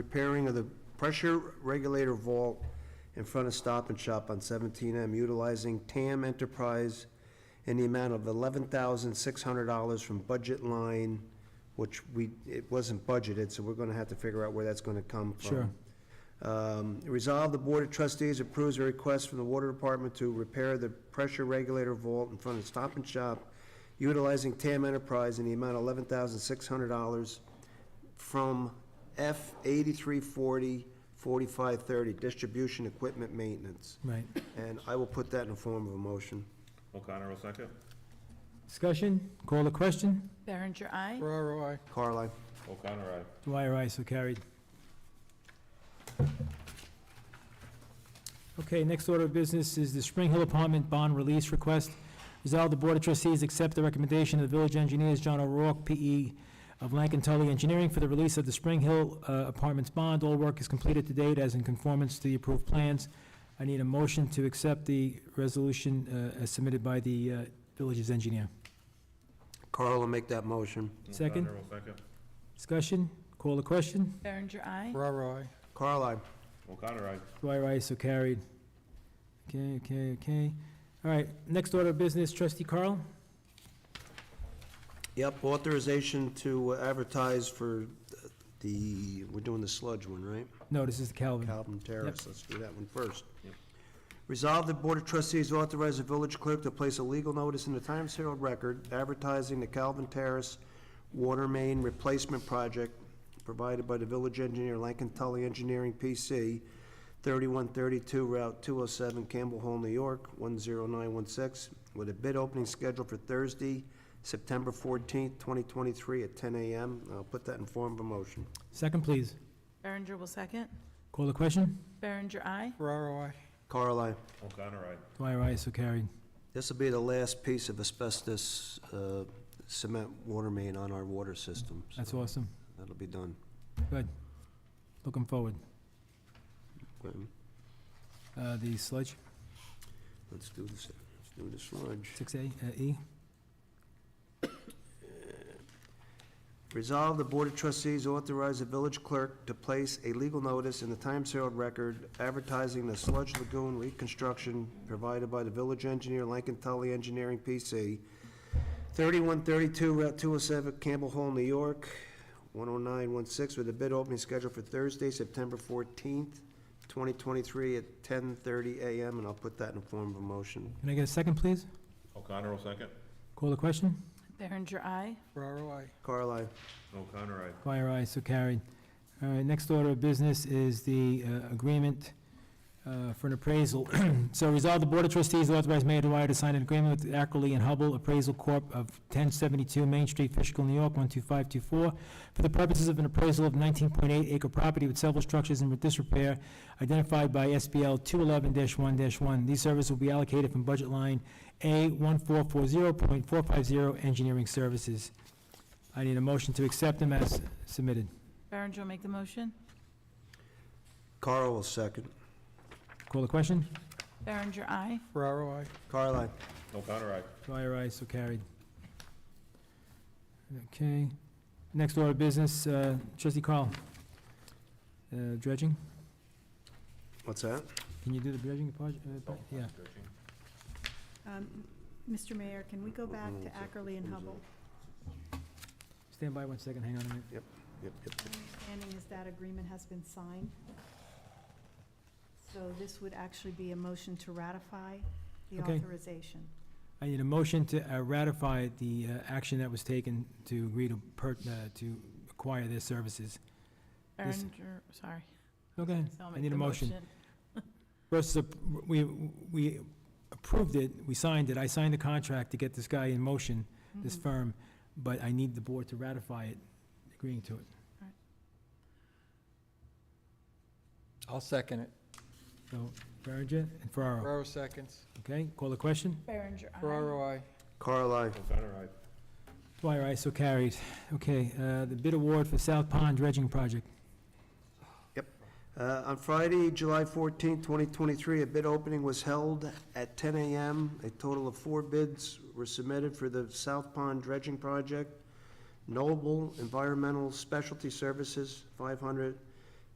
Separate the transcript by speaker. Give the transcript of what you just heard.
Speaker 1: repairing of the pressure regulator vault in front of Stop and Shop on 17M, utilizing TAM Enterprise in the amount of $11,600 from budget line, which we, it wasn't budgeted, so we're going to have to figure out where that's going to come from.
Speaker 2: Sure.
Speaker 1: Um, Resolve, the Board of Trustees approves a request from the Water Department to repair the pressure regulator vault in front of Stop and Shop utilizing TAM Enterprise in the amount of $11,600 from F 8340 4530, Distribution Equipment Maintenance.
Speaker 2: Right.
Speaker 1: And I will put that in the form of a motion.
Speaker 3: O'Connor will second.
Speaker 2: Discussion? Call the question?
Speaker 4: Berenger, aye.
Speaker 5: Ferraro, I.
Speaker 1: Carly,
Speaker 3: O'Connor, aye.
Speaker 2: Dwyer, aye, so carried. Okay, next order of business is the Spring Hill Apartment Bond Release Request. Resolve the Board of Trustees accept the recommendation of the village engineers John O'Rourke, P.E. of Lankin Tully Engineering for the release of the Spring Hill uh, Apartments Bond. All work is completed to date as in conformance to the approved plans. I need a motion to accept the resolution uh, as submitted by the uh, village's engineer.
Speaker 1: Carl will make that motion.
Speaker 2: Second.
Speaker 3: O'Connor will second.
Speaker 2: Discussion? Call the question?
Speaker 4: Berenger, aye.
Speaker 5: Ferraro, I.
Speaker 1: Carly,
Speaker 3: O'Connor, aye.
Speaker 2: Dwyer, aye, so carried. Okay, okay, okay. All right, next order of business, trustee Carl?
Speaker 1: yep, authorization to advertise for the, we're doing the sludge one, right?
Speaker 2: No, this is the Calvin.
Speaker 1: Calvin Terrace, let's do that one first.
Speaker 3: Yep.
Speaker 1: Resolve the Board of Trustees authorize the village clerk to place a legal notice in the Times Herald Record advertising the Calvin Terrace water main replacement project provided by the village engineer Lankin Tully Engineering, PC, 3132 Route 207, Campbell Hall, New York, 10916, with a bid opening scheduled for Thursday, September 14th, 2023, at 10 a.m. I'll put that in form of a motion.
Speaker 2: Second, please.
Speaker 4: Berenger will second.
Speaker 2: Call the question?
Speaker 4: Berenger, aye.
Speaker 5: Ferraro, I.
Speaker 1: Carl, I.
Speaker 3: O'Connor, aye.
Speaker 2: Dwyer, aye, so carried.
Speaker 1: This will be the last piece of asbestos uh, cement water main on our water system. so
Speaker 2: That's awesome.
Speaker 1: That'll be done.
Speaker 2: Looking forward.
Speaker 1: Um,
Speaker 2: Uh, the sludge,
Speaker 1: Let's do this, let's do the sludge.
Speaker 2: six A, uh, E.
Speaker 1: Resolve, the Board of Trustees authorize the village clerk to place a legal notice in the Times Herald Record advertising the sludge lagoon reconstruction provided by the village engineer Lankin Tully Engineering, PC, 3132 Route 207, Campbell Hall, New York, 10916, with a bid opening scheduled for Thursday, September 14th, 2023, at 10:30 a.m., and I'll put that in the form of a motion.
Speaker 2: Can I get a second, please?
Speaker 3: O'Connor will second.
Speaker 2: Call the question?
Speaker 4: Berenger, aye.
Speaker 5: Ferraro, I.
Speaker 1: Carl, I.
Speaker 3: O'Connor, aye.
Speaker 2: Dwyer, aye, so carried. All right, next order of business is the uh, agreement uh, for an appraisal. So resolve the Board of Trustees authorize Mayor Dwyer to sign an agreement with Ackerly and Hubble Appraisal Corp. of 1072 Main Street, Fishkill, New York, 12524, for the purposes of an appraisal of 19.8 acre property with several structures in disrepair identified by SBL 211-1-1. These services will be allocated from budget line A1440.450 Engineering Services. I need a motion to accept them as submitted.
Speaker 4: Berenger will make the motion.
Speaker 1: Carl will second.
Speaker 2: Call the question?
Speaker 4: Berenger, aye.
Speaker 5: Ferraro, I.
Speaker 1: Carl, I.
Speaker 3: O'Connor, aye.
Speaker 2: Dwyer, aye, so carried. Okay. Next order of business, uh, trustee Carl. Uh, Dredging?
Speaker 1: What's that?
Speaker 2: Can you do the dredging part? uh, part? Yeah.
Speaker 6: Um, Mr. Mayor, can we go back to Ackerly and Hubble?
Speaker 2: Stand by one second, hang on a minute.
Speaker 1: Yep, yep.
Speaker 6: My understanding is that agreement has been signed. So this would actually be a motion to ratify the
Speaker 2: Okay.
Speaker 6: authorization.
Speaker 2: I need a motion to uh, ratify the uh, action that was taken to agree to per, uh, to acquire their services. Yes.
Speaker 4: Berenger, sorry.
Speaker 2: Okay.
Speaker 4: So I'll
Speaker 2: I
Speaker 4: make
Speaker 2: need a
Speaker 4: the
Speaker 2: motion. Versus, a- uh, we, we approved it, we signed it, I signed the contract to get this guy in motion, this
Speaker 4: Mm-hmm.
Speaker 6: Mhm.
Speaker 2: firm, but I need the board to ratify it, agreeing to it.
Speaker 5: I'll second it.
Speaker 2: So Berenger and Ferraro,
Speaker 5: Ferraro seconds.
Speaker 2: okay? Call the question?
Speaker 4: Berenger, aye.
Speaker 5: Ferraro, I.
Speaker 1: Carl, I.
Speaker 3: O'Connor, aye.
Speaker 2: Dwyer, aye, so carried. Okay, uh, the bid award for South Pond dredging project.
Speaker 1: Uh, On Friday, July 14, 2023, a bid opening was held at 10 a.m. A total of four bids were submitted for the South Pond dredging project. Noble Environmental Specialty Services, 500,